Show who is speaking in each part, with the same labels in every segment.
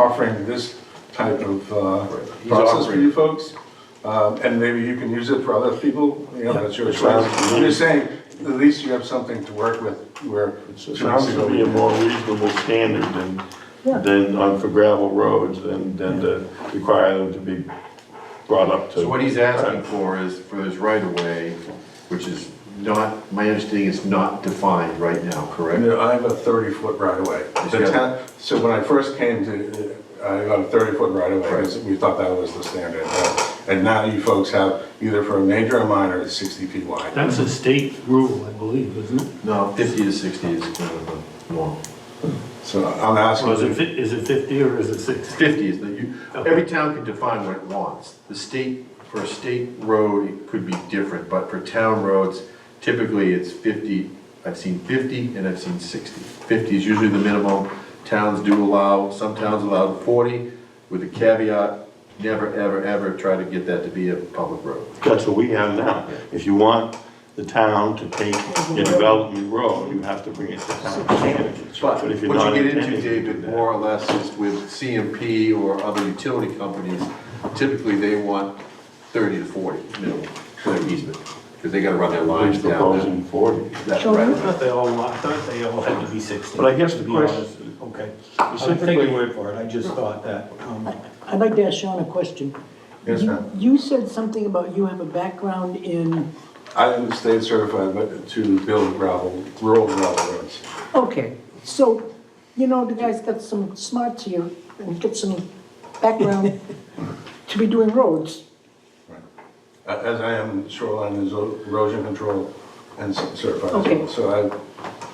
Speaker 1: offering this type of uh, process
Speaker 2: He's
Speaker 1: for
Speaker 2: offering-
Speaker 1: you folks. Um, And maybe you can use it for other people, you know, that's your choice. I'm just saying, at least you have something to work with where.
Speaker 3: It Sounds to be a more reasonable standard than, than on for gravel roads than, than to require them to be brought up to.
Speaker 2: So what he's asking for is for his right of way, which is not, my understanding is not defined right now,
Speaker 1: And
Speaker 2: correct?
Speaker 1: then I have a 30-foot right-of-way. The
Speaker 2: Yeah.
Speaker 1: town- So when I first came to, uh, I got a 30-foot right-of-way,
Speaker 2: Right.
Speaker 1: because we thought that was the standard. And now you folks have, either for a major or minor, it's 60 feet wide.
Speaker 4: That's a state rule, I believe, isn't it?
Speaker 2: No, fifty to sixty is kind of the norm.
Speaker 1: So I'm
Speaker 4: Or is it,
Speaker 1: asking,
Speaker 4: fif- is it 50 or is it 60?
Speaker 2: Fifty is the, you, every town can define what it wants. The state, for a state road, it could be different, but for town roads, typically it's fifty. I've seen fifty and I've seen sixty. Fifty is usually the minimum. Towns do allow, some towns allow forty with a caveat, never, ever, ever try to get that to be a public road.
Speaker 3: That's what we have now. If you want the town to take a development road, you have to bring it to town standards.
Speaker 2: But
Speaker 3: if
Speaker 2: what you
Speaker 3: you're not
Speaker 2: get into,
Speaker 3: intending to do
Speaker 2: David,
Speaker 3: that-
Speaker 2: more or less is with CMP or other utility companies, typically they want thirty to forty minimum for their easement, because they gotta run their
Speaker 3: He's
Speaker 2: lines down
Speaker 3: proposing forty.
Speaker 2: that, that right
Speaker 5: I
Speaker 2: of way.
Speaker 5: thought they all, I thought they all had to be 60.
Speaker 3: But I guess the
Speaker 5: to be
Speaker 3: question-
Speaker 5: honest. Okay. I'll take your word for it, I just thought that. um,
Speaker 6: I'd like to ask Sean a question.
Speaker 1: yes, ma'am.
Speaker 6: You said something about you have a background in,
Speaker 1: I am state certified but to build gravel, rural gravel roads.
Speaker 6: okay, so, you know, the guy's got some smarts here and got some background to be doing roads.
Speaker 1: Uh, As I am shoreline and erosion control and certified as well.
Speaker 6: Okay.
Speaker 1: So I.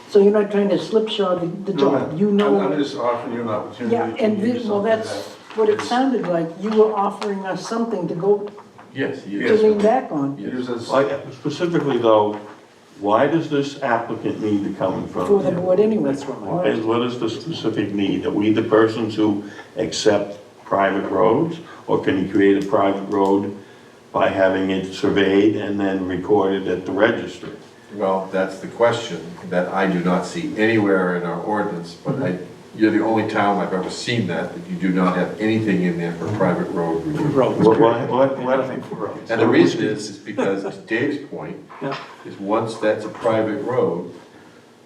Speaker 6: So you're not trying to slipshod the, the
Speaker 1: no,
Speaker 6: job,
Speaker 1: ma'am.
Speaker 6: you
Speaker 1: I'm I'm
Speaker 6: know.
Speaker 1: just offering you an opportunity.
Speaker 6: Yeah,
Speaker 1: to
Speaker 6: and
Speaker 1: do
Speaker 6: this, well,
Speaker 1: something
Speaker 6: that's
Speaker 1: that
Speaker 6: what it
Speaker 1: is-
Speaker 6: sounded like, you were offering us something to go,
Speaker 2: Yes,
Speaker 6: to
Speaker 2: yes.
Speaker 6: lean back on
Speaker 1: Use as-
Speaker 3: Like, specifically though, why does this applicant need to come in front
Speaker 6: for
Speaker 3: of
Speaker 6: the
Speaker 3: you?
Speaker 6: board anyway.
Speaker 3: Why- What is the specific need? Are we the persons who accept private roads? Or can you create a private road by having it surveyed and then recorded at the registry?
Speaker 2: Well, that's the question that I do not see anywhere in our ordinance, but I, you're the only town I've ever seen that, that you do not have anything in there for private road review.
Speaker 3: What, what, what, what?
Speaker 2: And the reason is, is because to Dave's point, is once that's a private road,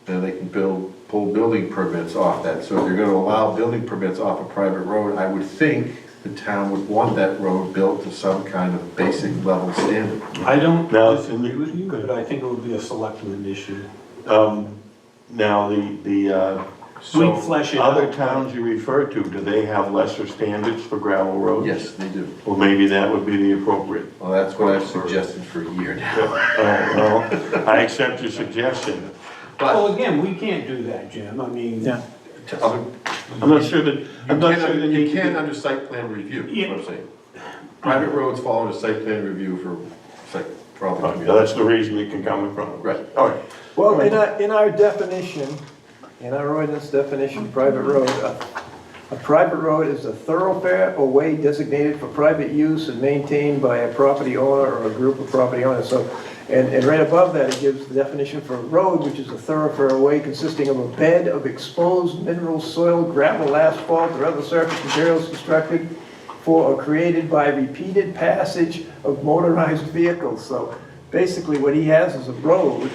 Speaker 2: then they can build, pull building permits off that. So if you're gonna allow building permits off a private road, I would think the town would want that road built to some kind of basic level standard.
Speaker 5: I don't
Speaker 3: Now-
Speaker 5: disagree with you, but I think it would be a selectman issue.
Speaker 3: Um, now, the, the, uh,
Speaker 5: We'd
Speaker 2: So,
Speaker 5: flesh it
Speaker 3: other
Speaker 5: out.
Speaker 3: towns you refer to, do they have lesser standards for gravel roads?
Speaker 2: yes, they do.
Speaker 3: Well, maybe that would be the appropriate.
Speaker 2: Well, that's what I've suggested for a year now.
Speaker 3: Uh, well, I accept your suggestion.
Speaker 2: But
Speaker 5: Well, again, we can't do that, Jim, I mean,
Speaker 6: Yeah.
Speaker 2: to other-
Speaker 3: I'm not sure that, I'm not sure that
Speaker 2: you
Speaker 3: you
Speaker 2: can under site plan review, is what I'm saying. Private roads fall under site plan review for, site probably.
Speaker 3: That's the reason it can come in front of.
Speaker 2: Right.
Speaker 3: All right.
Speaker 7: Well, in our, in our definition, in our ordinance definition, private road, uh, a, a private road is a thoroughfare or way designated for private use and maintained by a property owner or a group of property owners, so, and, and right above that, it gives the definition for road, which is a thoroughfare or way consisting of a bed of exposed mineral soil, gravel, asphalt, or other surface materials constructed for or created by repeated passage of motorized vehicles, so basically what he has is a road,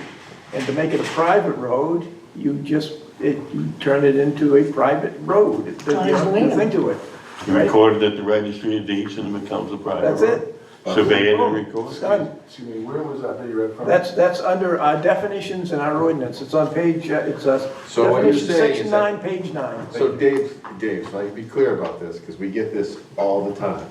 Speaker 7: and to make it a private road, you just, it, you turn it into a private road. It- There's nothing to it.
Speaker 3: You record it at the registry of deeds and it becomes a private.
Speaker 7: That's
Speaker 3: road. Survey it and record.
Speaker 7: It's
Speaker 3: it.
Speaker 7: Oh, done.
Speaker 1: Excuse me, where was that that you read from?
Speaker 7: That's, that's under our definitions in our ordinance. It's on page, uh, it's uh
Speaker 2: So what you're
Speaker 7: definition
Speaker 2: saying
Speaker 7: section
Speaker 2: is that-
Speaker 7: nine, page nine.
Speaker 2: So Dave, Dave, so I can be clear about this, because we get this all the time.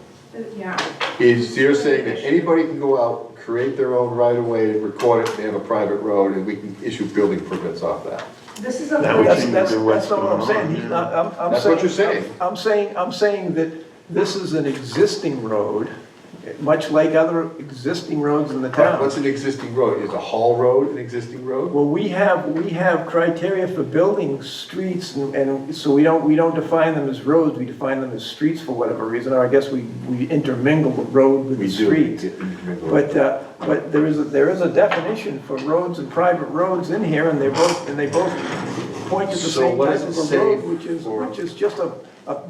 Speaker 8: Yeah,
Speaker 2: Is you're saying that anybody can go out, create their own right of way, record it, they have a private road, and we can issue building permits off that.
Speaker 8: this is a.
Speaker 3: That would
Speaker 7: That's,
Speaker 3: seem to
Speaker 7: that's,
Speaker 3: be what's
Speaker 7: that's not what I'm
Speaker 3: going on
Speaker 7: saying. He's
Speaker 3: here.
Speaker 7: not, I'm, I'm saying.
Speaker 2: That's what you're saying.
Speaker 7: I'm I'm saying, I'm saying that this is an existing road, much like other existing roads in the town.
Speaker 2: What's an existing road? Is a hall road an existing road?
Speaker 7: Well, we have, we have criteria for building streets, and- and so we don't, we don't define them as roads, we define them as streets for whatever reason, or I guess we, we intermingle the road with
Speaker 2: We
Speaker 7: the
Speaker 2: do.
Speaker 7: street. But, uh, but there is, a- there is a definition for roads and private roads in here, and they both, and they both point to the
Speaker 2: So
Speaker 7: same
Speaker 2: what
Speaker 7: type
Speaker 2: does it
Speaker 7: of a
Speaker 2: say
Speaker 7: road, which is,
Speaker 2: for-
Speaker 7: which is just a, a